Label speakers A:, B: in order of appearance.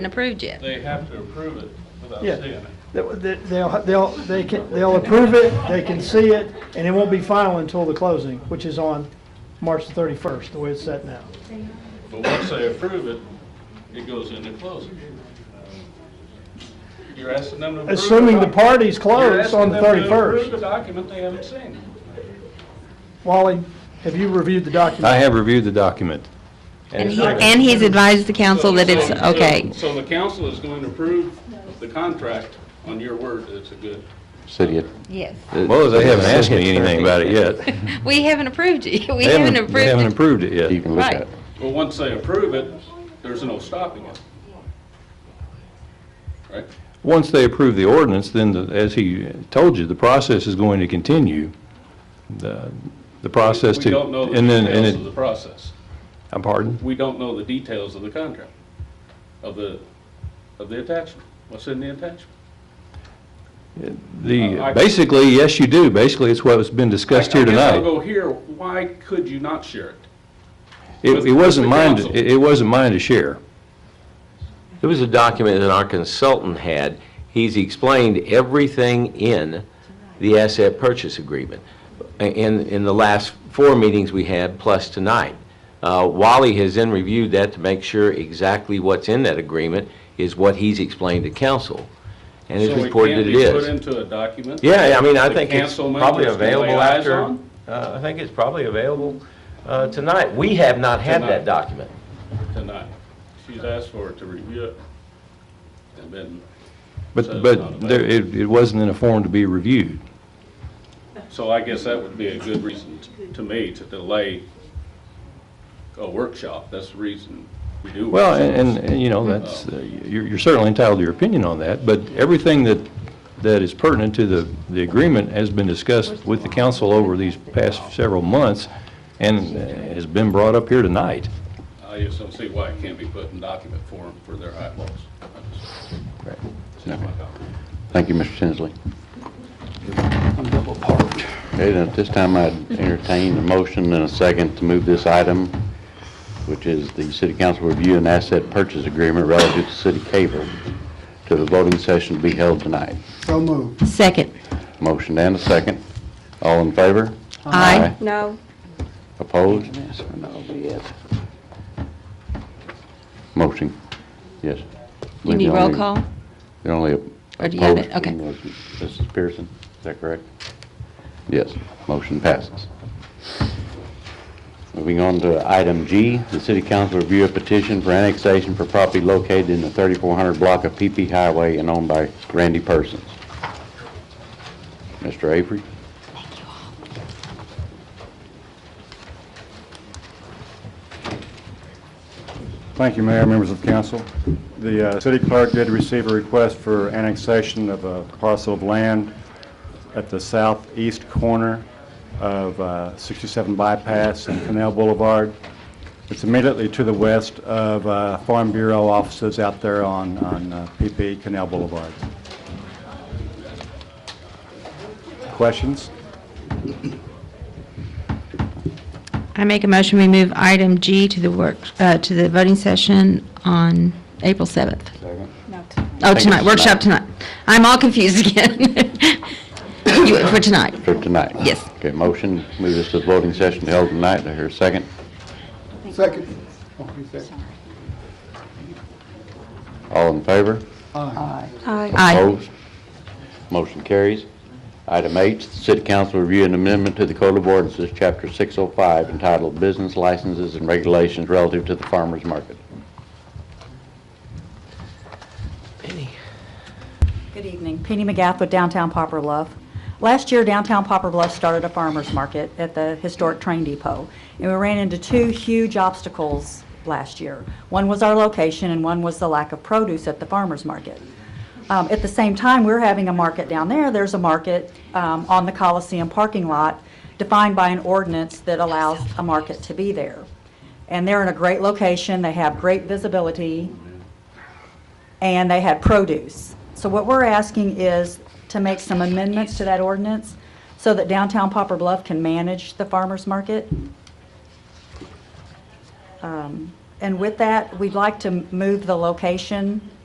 A: approved yet.
B: They have to approve it without
C: Yeah.
B: seeing it.
C: They- they- They'll, they'll, they can, they'll approve it, they can see it, and it won't be final until the closing, which is on March the 31st, the way it's set now.
B: But once they approve it, it goes into closing. You're asking them to approve.
C: Assuming the
B: doc-
C: parties
B: You're
C: close
B: asking
C: on the
B: them to Approve
C: 31st.
B: the document they haven't seen.
C: Wally, have you reviewed the
D: I
C: document?
D: have reviewed the document.
A: And
D: it's
A: he,
D: not-
A: and he's advised the council
B: So-
A: that it's
B: so- so-
A: okay.
B: So the council is going to approve the contract on your word that it's a good.
E: City at-
A: Yes.
D: Well, they haven't asked me anything about it yet.
A: We haven't approved it. We
D: They
A: haven't
D: They haven't
A: approved it.
D: approved it
E: you
D: yet.
E: can look
A: Right.
E: at.
B: Well, once they approve it, there's no stopping it. Right?
D: Once they approve the ordinance, then, the- as he told you, the process is going to continue. The the process to...
B: We don't know the
D: and then- and
B: details
D: it-
B: of the process.
D: I'm pardon?
B: We don't know the details of the contract, of the, of the attachment, what's in the attachment. Uh, I-
D: The, basically, yes, you do. Basically, it's what's been discussed here
B: I guess
D: tonight.
B: I'll go here, why could you not share it?
D: It it wasn't
B: Mr.
D: mine,
B: Counsel.
D: to- it it wasn't mine to share.
F: There was a document that our consultant had. He's explained everything in the asset purchase agreement in, in the last four meetings we had, plus tonight. Uh, Wally has then reviewed that to make sure exactly what's in that agreement is what he's explained to council, and it's reported it
B: So it
F: is.
B: can't be put into a document?
F: Yeah, I mean, I
B: The
F: think it's
B: council
F: probably
B: members can lay
F: available
B: eyes
F: after,
B: on?
F: uh, I think it's probably available uh, tonight. We have not had
B: Tonight.
F: that document.
B: Tonight. She's asked for it to review it, and then, So
D: But
B: it's not
D: but
B: available.
D: there- it it wasn't in a form to be reviewed.
B: so I guess that would be a good reason t- to me to delay a workshop, that's the reason we do.
D: Well,
B: workshops.
D: and, and, you know, that's, uh, you're you're certainly entitled to your opinion on that, but everything that, that is pertinent to the, the agreement has been discussed with the council over these past several months and uh, has been brought up here tonight.
B: I just don't see why it can't be put in document form for their eyeballs. I just- It's not my problem.
E: Thank you, Mr. Tinsley. Okay, now, at this time, I'd entertain a motion and a second to move this item, which is the city council review and asset purchase agreement relative to city cable, to the voting session to be held tonight.
G: So moved.
A: Second.
E: Motion and a second. All in favor?
A: Aye. No.
E: Opposed? Yes. Motion, yes.
A: You need
E: You're
A: roll
E: only-
A: call?
E: You're only
A: Or do you have
E: opposed
A: it? Okay.
E: was Mrs. Pearson, is that correct? Yes, motion passes. Moving on to item G, the city council review a petition for annexation for property located in the 3400 block of PP Highway and owned by Randy Persons. Mr. Avery?
H: Thank you, Mayor, members of council. The uh, city clerk did receive a request for annexation of a parcel of land at the southeast corner of uh, 67 Bypass and Canal Boulevard. It's immediately to the west of uh, Farm Bureau offices out there on on uh, PP Canal Boulevard. Questions?
A: I make a motion, we move item G to the work, uh, to the voting session on April 7th. Oh,
E: it's
A: tonight, workshop tonight. I'm all confused again. You- For tonight.
E: For tonight?
A: Yes.
E: Okay, motion, move this to the voting session held tonight. Do I hear a second?
G: Second. Oh, you second.
E: All in favor?
G: Aye.
A: Aye.
E: Opposed? Motion carries. Item H, the City Council review an amendment to the Code of Ordinances, Chapter 605, entitled Business Licenses and Regulations Relative to the Farmers Market.
I: Good evening. Penny McGath with Downtown Popper Bluff. Last year, Downtown Popper Bluff started a farmer's market at the historic train depot, and we ran into two huge obstacles last year. One was our location, and one was the lack of produce at the farmer's market. Um, At the same time, we're having a market down there. There's a market um, on the Coliseum parking lot defined by an ordinance that allows a market to be there. And they're in a great location. They have great visibility and they had produce. So what we're asking is to make some amendments to that ordinance so that downtown Popper Bluff can manage the farmer's market. Um, And with that, we'd like to move the location